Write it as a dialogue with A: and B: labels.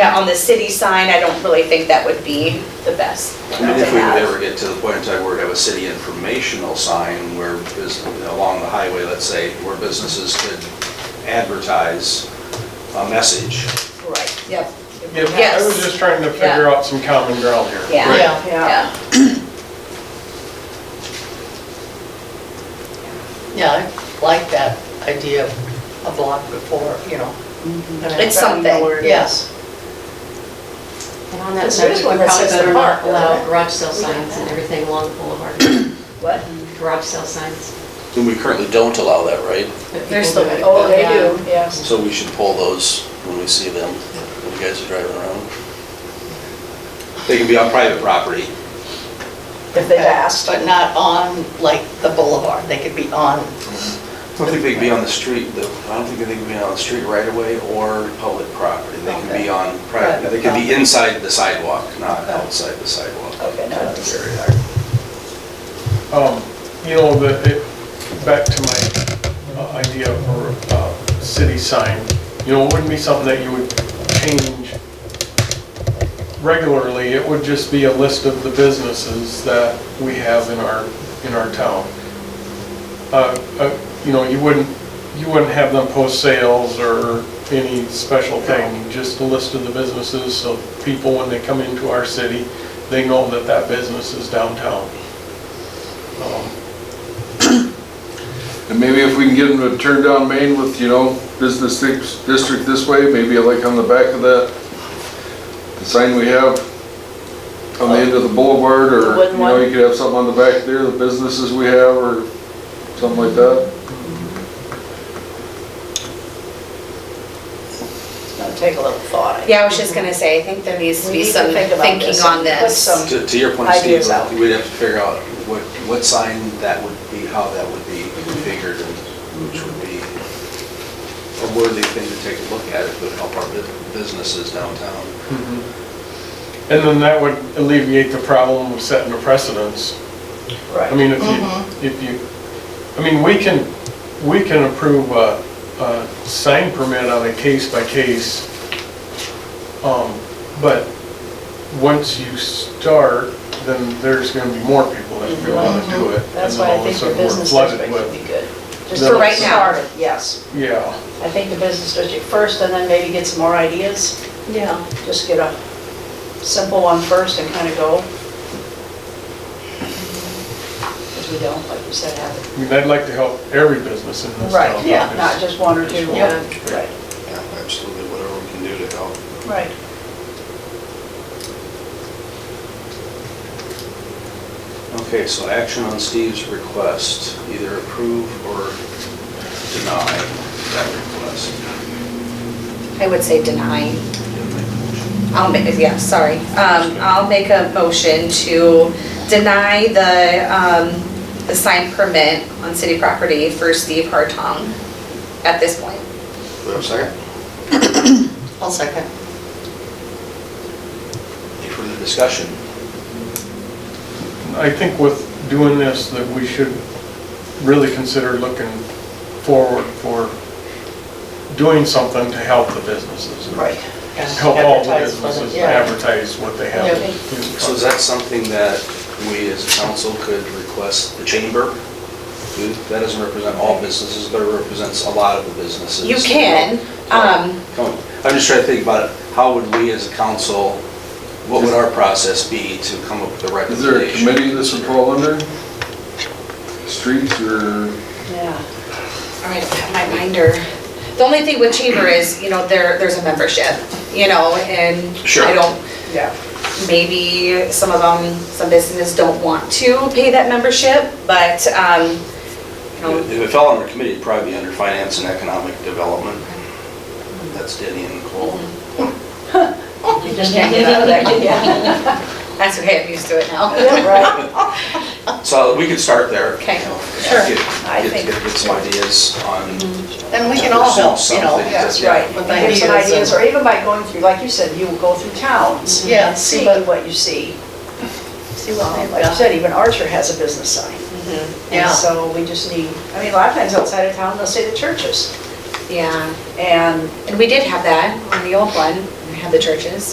A: Yeah, on the city sign, I don't really think that would be the best
B: I
A: to
B: mean, if we would ever
A: have.
B: get to the point in time where we have a city informational sign where, bus- along the highway, let's say, where businesses could advertise a message.
A: Right, yep.
C: Yeah, I was
A: Yes,
C: just trying to figure out some common ground here.
A: yeah,
B: Right.
D: Yeah.
A: yeah.
D: Yeah, I like that idea of a block before, you know.
A: It's something.
D: Yes.
E: And on that
D: Because there is
E: subject, we
D: one
E: probably
D: that says
E: better
D: the park.
E: not allow
D: right?
E: garage sale signs and everything along the boulevard,
A: What?
E: garage sale signs.
F: And we currently don't allow that, right?
E: but
D: They're
E: people
D: still-
E: do it.
D: oh, they
E: Yeah.
D: do.
A: yes.
F: So we should pull those when we see them, when you guys are driving around.
B: They can be on private property.
D: If they've asked. But not on, like, the boulevard, they could be on,
B: I don't think they can be on the street, though. I don't think they can be on the street right away or public property. They can be on private, they could be inside the sidewalk, not outside the sidewalk.
A: Okay, no, that's-
B: Area.
C: Um, You know, the, it- back to my uh, idea for a city sign, you know, it wouldn't be something that you would change regularly. It would just be a list of the businesses that we have in our, in our town. Uh, uh, You know, you wouldn't, you wouldn't have them post sales or any special thing, just a list of the businesses so people, when they come into our city, they know that that business is downtown. Um,
G: And maybe if we can get them to turn down Main with, you know, business dis- district this way, maybe like on the back of that, the sign we have on the end of the boulevard,
D: The
G: or,
D: wooden
G: you know,
D: one?
G: you could have something on the back there, the businesses we have, or something like that.
D: it's gonna take a little thought.
A: Yeah, I was just gonna say, I think there needs to
D: We
A: be
D: need to
A: some
D: think about
A: thinking
D: this
A: on
D: and put some-
A: this.
B: To, to your point, Steve,
D: Ideas out.
B: we'd have to figure out what, what sign that would be, how that would be configured, and which would be a worthy thing to take a look at, it would help our bu- businesses downtown.
C: Mm-hmm. And then that would alleviate the problem of setting a precedence. I mean, if
D: Mm-hmm.
C: you, if you, I mean, we can, we can approve a, a sign permit on a case by case. Um, but once you start, then there's gonna be more people that go out and do it.
D: Mm-hmm.
C: and
D: That's
C: then
D: why
C: all of
D: I
C: a
D: think the
C: sudden we're
D: business
C: flooded
D: district
C: with-
D: would be good.
A: Just for right now.
D: Started, Yes,
C: Yeah,
D: I think the business district first, and then maybe get some more ideas,
E: Yeah.
D: just get a simple one first and kind of go. Because we don't, like you said, have it.
C: I mean, I'd like to help every business in this town.
D: Not just one or two.
E: Yeah.
D: Right.
F: Yeah, absolutely, whatever we can do to help.
D: Right.
B: Okay, so action on Steve's request, either approve or deny that request.
A: I would say denying.
B: Yeah, make a motion.
A: I'll make, yeah, sorry. Um, I'll make a motion to deny the, um, the sign permit on city property for Steve Hartong at this point.
B: Do we have a second?
D: I'll second.
B: Any further discussion?
C: I think with doing this, that we should really consider looking forward for doing something to help the businesses.
D: Right.
C: Help all the
D: Advertise for them,
C: businesses
D: yeah.
C: advertise what they have.
D: Yeah.
B: So is that something that we as a council could request the chamber? do? That doesn't represent all businesses, but it represents a lot of the businesses.
A: You can, um,
B: Come on. I'm just trying to think about it. How would we as a council, what would our process be to come up with a
G: Is there a
B: recommendation?
G: committee this would fall under? Streets or?
D: Yeah.
A: all right, I have my binder. The only thing with chamber is, you know, there, there's a membership, you know, and
B: Sure.
A: I don't,
D: Yeah.
A: maybe some of them, some businesses don't want to pay that membership, but, um, you know,
B: If it fell under committee, it'd probably be under finance and economic development. That's Denny and Nicole.
D: You just can't get out of that, Oh, yeah.
A: that's okay, I'm used to it now.
D: Right.
B: So we could start there.
A: Okay.
B: you know,
D: Sure.
B: get-
D: I
B: get-
D: think-
B: Get get some ideas on.
D: Then we can all help, you know.
B: Something,
D: Yes,
B: yeah.
D: right. With ideas. Some ideas, or even by going through, like you said, you will go through towns.
E: Yeah, see
D: See
E: what-
D: what you see. Um,
E: See what they've
D: Like you
E: got.
D: said, even Archer has a business sign. And
E: Yeah.
D: so we just need, I mean, a lot of times outside of town, they'll say the churches.
A: Yeah,
D: And
A: and we did have that on the old one. We had the churches.